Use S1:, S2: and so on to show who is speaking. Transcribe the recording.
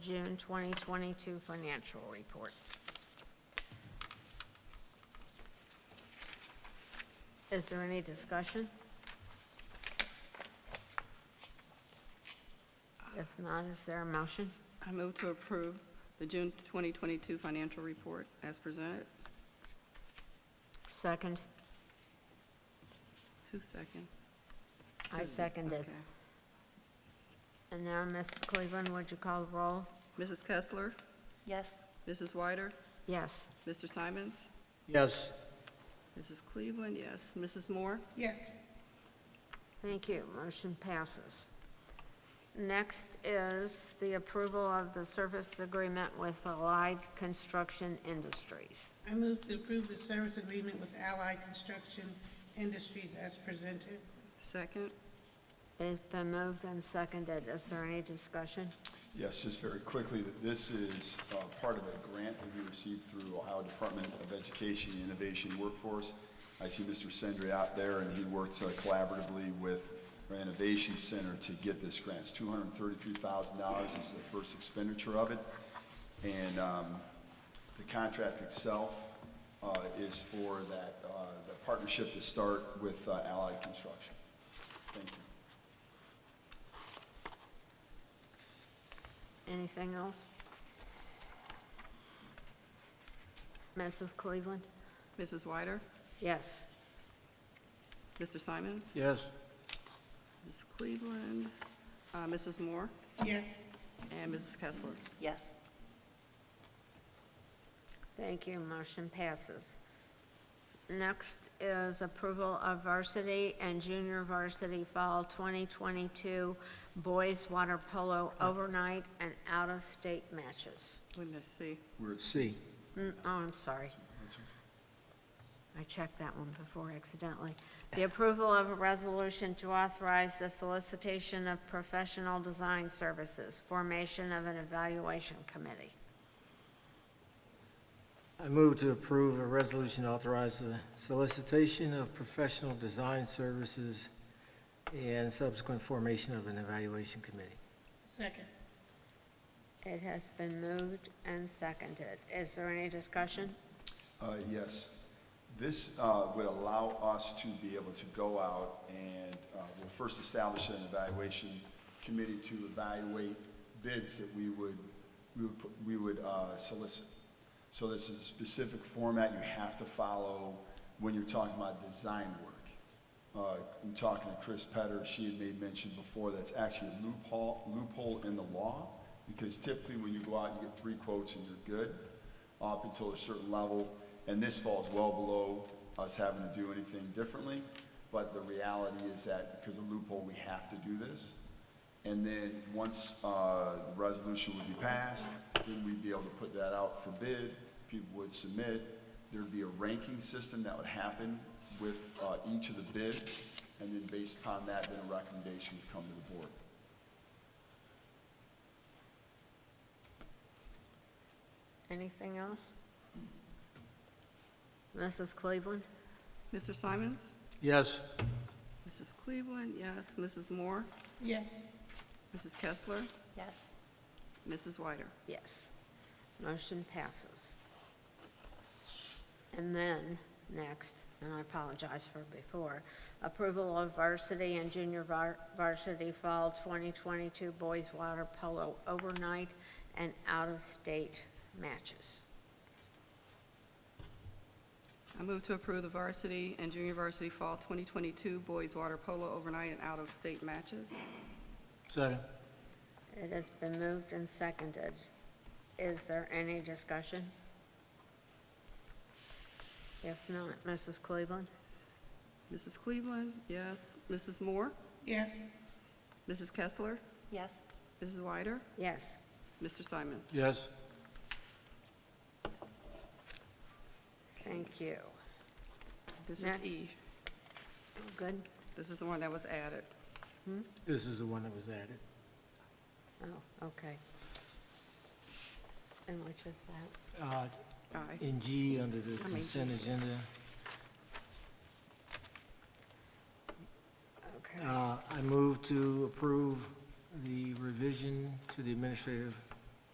S1: June 2022 financial report. Is there any discussion? If not, is there a motion?
S2: I move to approve the June 2022 financial report as presented.
S1: Second?
S2: Who's second?
S1: I
S2: Susan,
S1: seconded.
S2: okay.
S1: And now, Ms. Cleveland, would you call the roll?
S2: Mrs. Kessler,
S3: Yes.
S2: Mrs. Wyder,
S1: Yes.
S2: Mr. Simons,
S4: Yes.
S2: Mrs. Cleveland, yes. Mrs. Moore,
S4: Yes.
S1: Thank you. Motion passes. Next is the approval of the service agreement with Allied Construction Industries.
S5: I move to approve the service agreement with Allied Construction Industries as presented.
S2: second.
S1: It has been moved and seconded. Is there any discussion?
S6: Yes, just very quickly, that this is uh, part of a grant that we received through Ohio Department of Education and Innovation Workforce. I see Mr. Sendry out there, and he works uh, collaboratively with our Innovation Center to get this grant. It's $233,000 is the first expenditure of it. And um, the contract itself uh, is for that, uh, the partnership to start with uh, Allied Construction. Thank you.
S1: Anything else? Mrs. Cleveland?
S2: Mrs. Wyder,
S1: Yes.
S2: Mr. Simons,
S4: Yes.
S2: Mrs. Cleveland, uh, Mrs. Moore,
S5: Yes,
S2: and Mrs. Kessler.
S3: Yes.
S1: Thank you. Motion passes. Next is approval of varsity and junior varsity fall 2022 boys water polo overnight and out-of-state matches.
S2: We missed C.
S6: We're at
S4: C.
S1: Mm, Oh, I'm sorry. I checked that one before accidentally. The approval of a resolution to authorize the solicitation of professional design services, formation of an evaluation committee.
S4: I move to approve a resolution authorizing the solicitation of professional design services and subsequent formation of an evaluation committee.
S5: second.
S1: It has been moved and seconded. Is there any discussion?
S6: Uh, Yes. This uh, would allow us to be able to go out and uh, we'll first establish an evaluation committee to evaluate bids that we would, we would put- we would uh, solicit. So this is a specific format you have to follow when you're talking about design work. Uh, I'm talking to Chris Petter, she had made mention before, that's actually a loophole, loophole in the law, because typically when you go out, you get three quotes and you're good, up until a certain level, and this falls well below us having to do anything differently, but the reality is that because of loophole, we have to do this. And then, once uh, the resolution would be passed, then we'd be able to put that out for bid, people would submit, there'd be a ranking system that would happen with uh, each of the bids, and then based upon that, then a recommendation would come to the board.
S1: Anything else? Mrs. Cleveland?
S2: Mr. Simons,
S4: Yes.
S2: Mrs. Cleveland, yes. Mrs. Moore,
S5: Yes,
S2: Mrs. Kessler,
S3: Yes.
S2: Mrs. Wyder.
S1: Yes. Motion passes. And then, next, and I apologize for before, approval of varsity and junior var- varsity fall 2022 boys water polo overnight and out-of-state matches.
S2: I move to approve the varsity and junior varsity fall 2022 boys water polo overnight and out-of-state matches.
S4: Second.
S1: It has been moved and seconded. Is there any discussion? If not, Mrs. Cleveland?
S2: Mrs. Cleveland, yes. Mrs. Moore,
S5: yes,
S2: Mrs. Kessler,
S3: Yes.
S2: Mrs. Wyder,
S1: Yes.
S2: Mr. Simons.
S4: Yes.
S1: Thank you.
S2: This is
S1: Next.
S2: E.
S1: Good?
S2: This is the one that was added.
S4: This is the one that was added.
S1: Oh, okay. And which is that?
S4: Uh,
S2: Aye.
S4: In G, under the
S2: I mean-
S4: consent agenda,
S1: Okay.
S4: uh, I move to approve the revision to the administrative